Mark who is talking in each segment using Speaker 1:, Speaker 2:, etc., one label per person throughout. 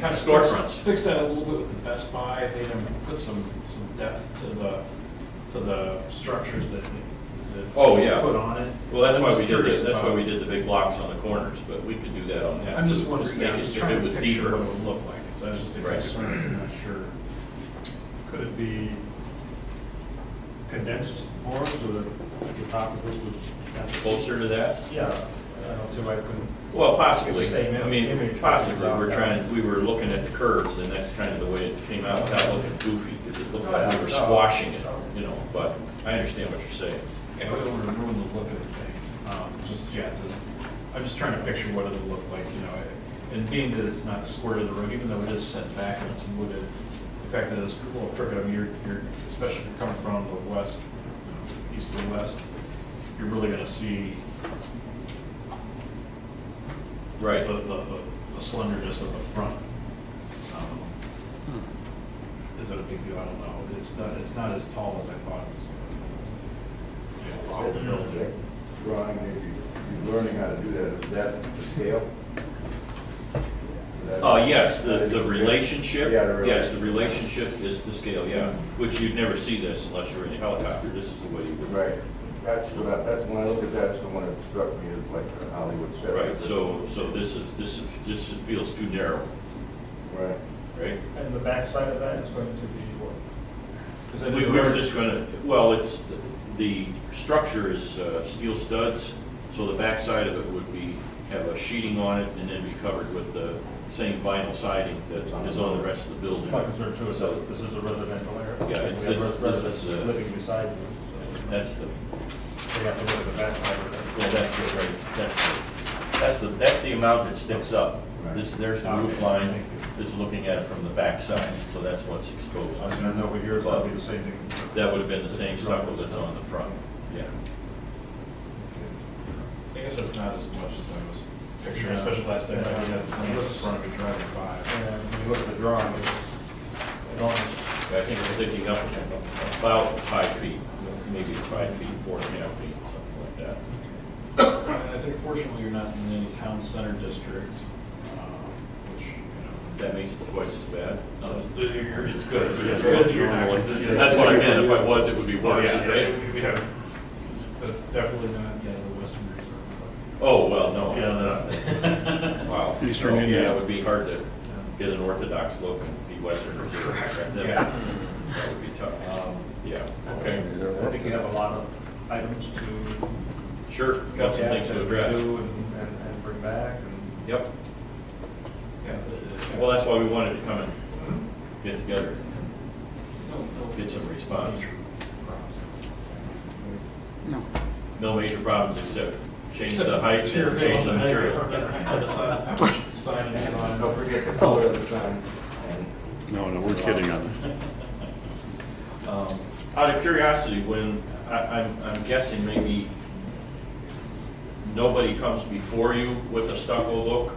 Speaker 1: kind of
Speaker 2: Storefronts.
Speaker 1: fix- Fix that a little bit with the Best Buy, they done put some, some depth to the, to the structures that, that.
Speaker 2: Oh, yeah.
Speaker 1: Put on it.
Speaker 2: Well, that's
Speaker 1: I'm
Speaker 2: why
Speaker 1: just
Speaker 2: we did,
Speaker 1: curious
Speaker 2: the- that's why
Speaker 1: about-
Speaker 2: we did the big blocks on the corners, but we could do that on that.
Speaker 1: I'm just
Speaker 2: too.
Speaker 1: wondering, yeah, I'm
Speaker 2: make it-
Speaker 1: just
Speaker 2: if
Speaker 1: trying
Speaker 2: it
Speaker 1: to
Speaker 2: was
Speaker 1: picture
Speaker 2: deeper.
Speaker 1: what it would look like, so I was just a
Speaker 2: Right.
Speaker 1: concern, I'm not sure.
Speaker 3: Could it be condensed more so that the top of this was?
Speaker 2: Closer to that?
Speaker 3: Yeah, I don't see why it couldn't.
Speaker 2: Well, possibly.
Speaker 3: Get the same
Speaker 2: I mean,
Speaker 3: image.
Speaker 2: possibly. We're trying, we were looking at the curves and that's kind of the way it came out without looking goofy because it looked like we were
Speaker 3: Oh, yeah.
Speaker 2: squashing it, you know, but I understand what you're saying.
Speaker 1: Yeah, but it would ruin the look of the thing, um, just, yeah, just, I'm just trying to picture what it would look like, you know, and being that it's not square to the road, even though it is set back and it's wooded, the fact that it's a little crooked, I mean, you're, you're, especially if you're coming from the west, you know, east to west, you're really gonna see
Speaker 2: Right.
Speaker 1: the, the, the slenderness of the front. Um, Is that a big deal? I don't know. It's not, it's not as tall as I thought it was. Yeah, off the building.
Speaker 4: Drawing, maybe, you're learning how to do that, is that the scale? That's-
Speaker 2: Oh, yes, the,
Speaker 4: that is
Speaker 2: the
Speaker 4: scale?
Speaker 2: relationship.
Speaker 4: Yeah, the
Speaker 2: Yes, the
Speaker 4: relationship.
Speaker 2: relationship is the scale, yeah, which you'd never see this unless you're in a helicopter. This is the way you would.
Speaker 4: Right, that's what I, that's when I look at that, it's the one that struck me as like a Hollywood set.
Speaker 2: Right, so, so this is, this is, this feels too narrow,
Speaker 4: Right.
Speaker 2: right?
Speaker 3: And the backside of that is going to be what? Is that
Speaker 2: We, we were just gonna, well, it's, the structure is uh, steel studs, so the backside of it would be, have a sheeting on it and then be covered with the same vinyl siding that is on the rest of the building.
Speaker 3: My concern too is
Speaker 2: So
Speaker 3: that this is a residential area.
Speaker 2: Yeah, it's-
Speaker 3: We have
Speaker 2: this-
Speaker 3: res-
Speaker 2: this is,
Speaker 3: residents
Speaker 2: uh,
Speaker 3: Living beside you, so
Speaker 2: That's the,
Speaker 3: they have to look at the backside of that.
Speaker 2: well, that's the, right, that's, the- that's the, that's the amount that sticks up. This, there's the roof line, this is looking at it from the backside, so that's what's exposed.
Speaker 3: I said, I know, but yours would be the same thing.
Speaker 2: That would have been the same stucco that's on the front, yeah.
Speaker 1: I guess that's not as much as I was picturing,
Speaker 3: Yeah.
Speaker 1: especially last night, I had the plane in front of me driving by.
Speaker 3: And when you look at the drawing, it's enormous.
Speaker 2: I think it's sticking up about five feet, maybe five feet, four and a half feet, something like that.
Speaker 1: And I think fortunately, you're not in any town center district, um, which, you
Speaker 2: That makes it twice as bad.
Speaker 1: know.
Speaker 2: So-
Speaker 1: it's good,
Speaker 2: It's good that you're not- yeah, That's what I meant, if I was, it would be
Speaker 1: Oh,
Speaker 2: worse,
Speaker 1: yeah,
Speaker 2: right?
Speaker 1: yeah, we have, that's definitely not, yeah, the Western Reserve.
Speaker 2: Oh, well, no.
Speaker 3: Yeah, no.
Speaker 2: that's- Wow.
Speaker 5: Eastern
Speaker 2: No,
Speaker 5: India.
Speaker 2: Yeah, it would be hard to get an orthodox look and be Western Reserve. That would-
Speaker 1: Yeah.
Speaker 2: That would be tough.
Speaker 3: Um,
Speaker 2: Yeah, okay,
Speaker 3: I think you have a lot of items to.
Speaker 2: sure, got some
Speaker 3: look at
Speaker 2: things to
Speaker 3: and
Speaker 2: address.
Speaker 3: do And, and- and bring back and.
Speaker 2: Yep.
Speaker 1: Yeah, but, uh,
Speaker 2: Well, that's why we wanted to come and
Speaker 3: Mm-hmm.
Speaker 2: get together, get some response.
Speaker 5: No.
Speaker 2: No major problems except change the
Speaker 1: Except
Speaker 2: height
Speaker 1: material.
Speaker 2: and change the material.
Speaker 1: The sign- sign is on.
Speaker 4: And don't forget the color of the sign. And
Speaker 5: No, no, we're kidding on that.
Speaker 2: Um, Out of curiosity, when, I, I'm, I'm guessing maybe nobody comes before you with a stucco look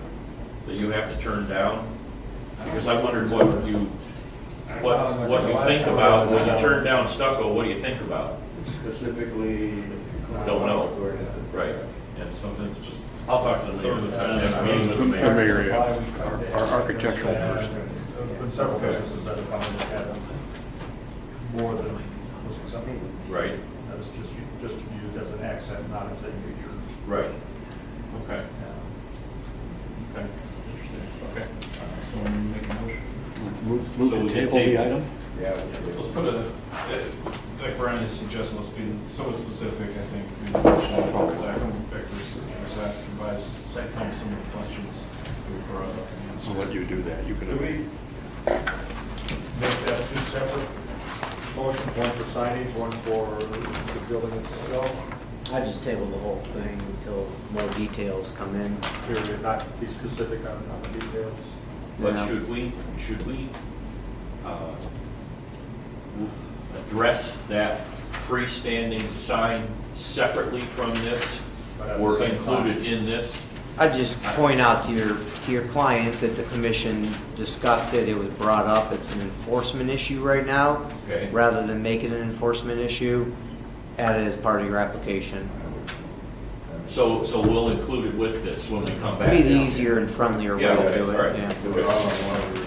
Speaker 2: that you have to turn down? Because I wondered what you, what, what you think about, when you turn down stucco, what do you think about?
Speaker 4: Specifically.
Speaker 2: Don't know. Right.
Speaker 1: Yeah, something's just.
Speaker 2: I'll talk to the mayor.
Speaker 1: Something's been- I mean,
Speaker 5: The mayor, yeah. our architectural person.
Speaker 3: There are Several businesses that have come in that have more than was acceptable.
Speaker 2: Right,
Speaker 3: That is just, just used as an accent, not as a major.
Speaker 2: right. Okay,
Speaker 3: um,
Speaker 2: okay, interesting, okay.
Speaker 3: uh,
Speaker 1: Someone make a motion.
Speaker 5: Move
Speaker 2: So
Speaker 5: move
Speaker 2: we
Speaker 5: to
Speaker 2: can
Speaker 5: table the
Speaker 2: table.
Speaker 5: item?
Speaker 4: Yeah.
Speaker 1: Let's put a, uh, like Brian is suggesting, let's be somewhat specific, I think. we should go Back and back research, so that provides, site plan, some of the questions we brought up and
Speaker 5: I'll let
Speaker 1: answered.
Speaker 5: you do that. You can.
Speaker 3: Do we make that two separate motions, one for signage, one for the building itself,
Speaker 6: I just table the whole thing until more details come in.
Speaker 3: period, not be specific on, on the details?
Speaker 2: But
Speaker 6: Yeah.
Speaker 2: should we, should we uh, w- address that freestanding sign separately from this?
Speaker 3: But at the
Speaker 2: Or
Speaker 3: same time-
Speaker 2: included in this?
Speaker 6: I just point out to your, to your client that the commission discussed it, it was brought up, it's an enforcement issue right now.
Speaker 2: Okay.
Speaker 6: Rather than make it an enforcement issue, add it as part of your application.
Speaker 2: So, so we'll include it with this when we come back?
Speaker 6: Be the
Speaker 2: down.
Speaker 6: easier and friendlier way
Speaker 2: Yeah,
Speaker 6: to
Speaker 2: okay,
Speaker 6: do
Speaker 2: all right.
Speaker 6: it, yeah.
Speaker 4: Do it all in one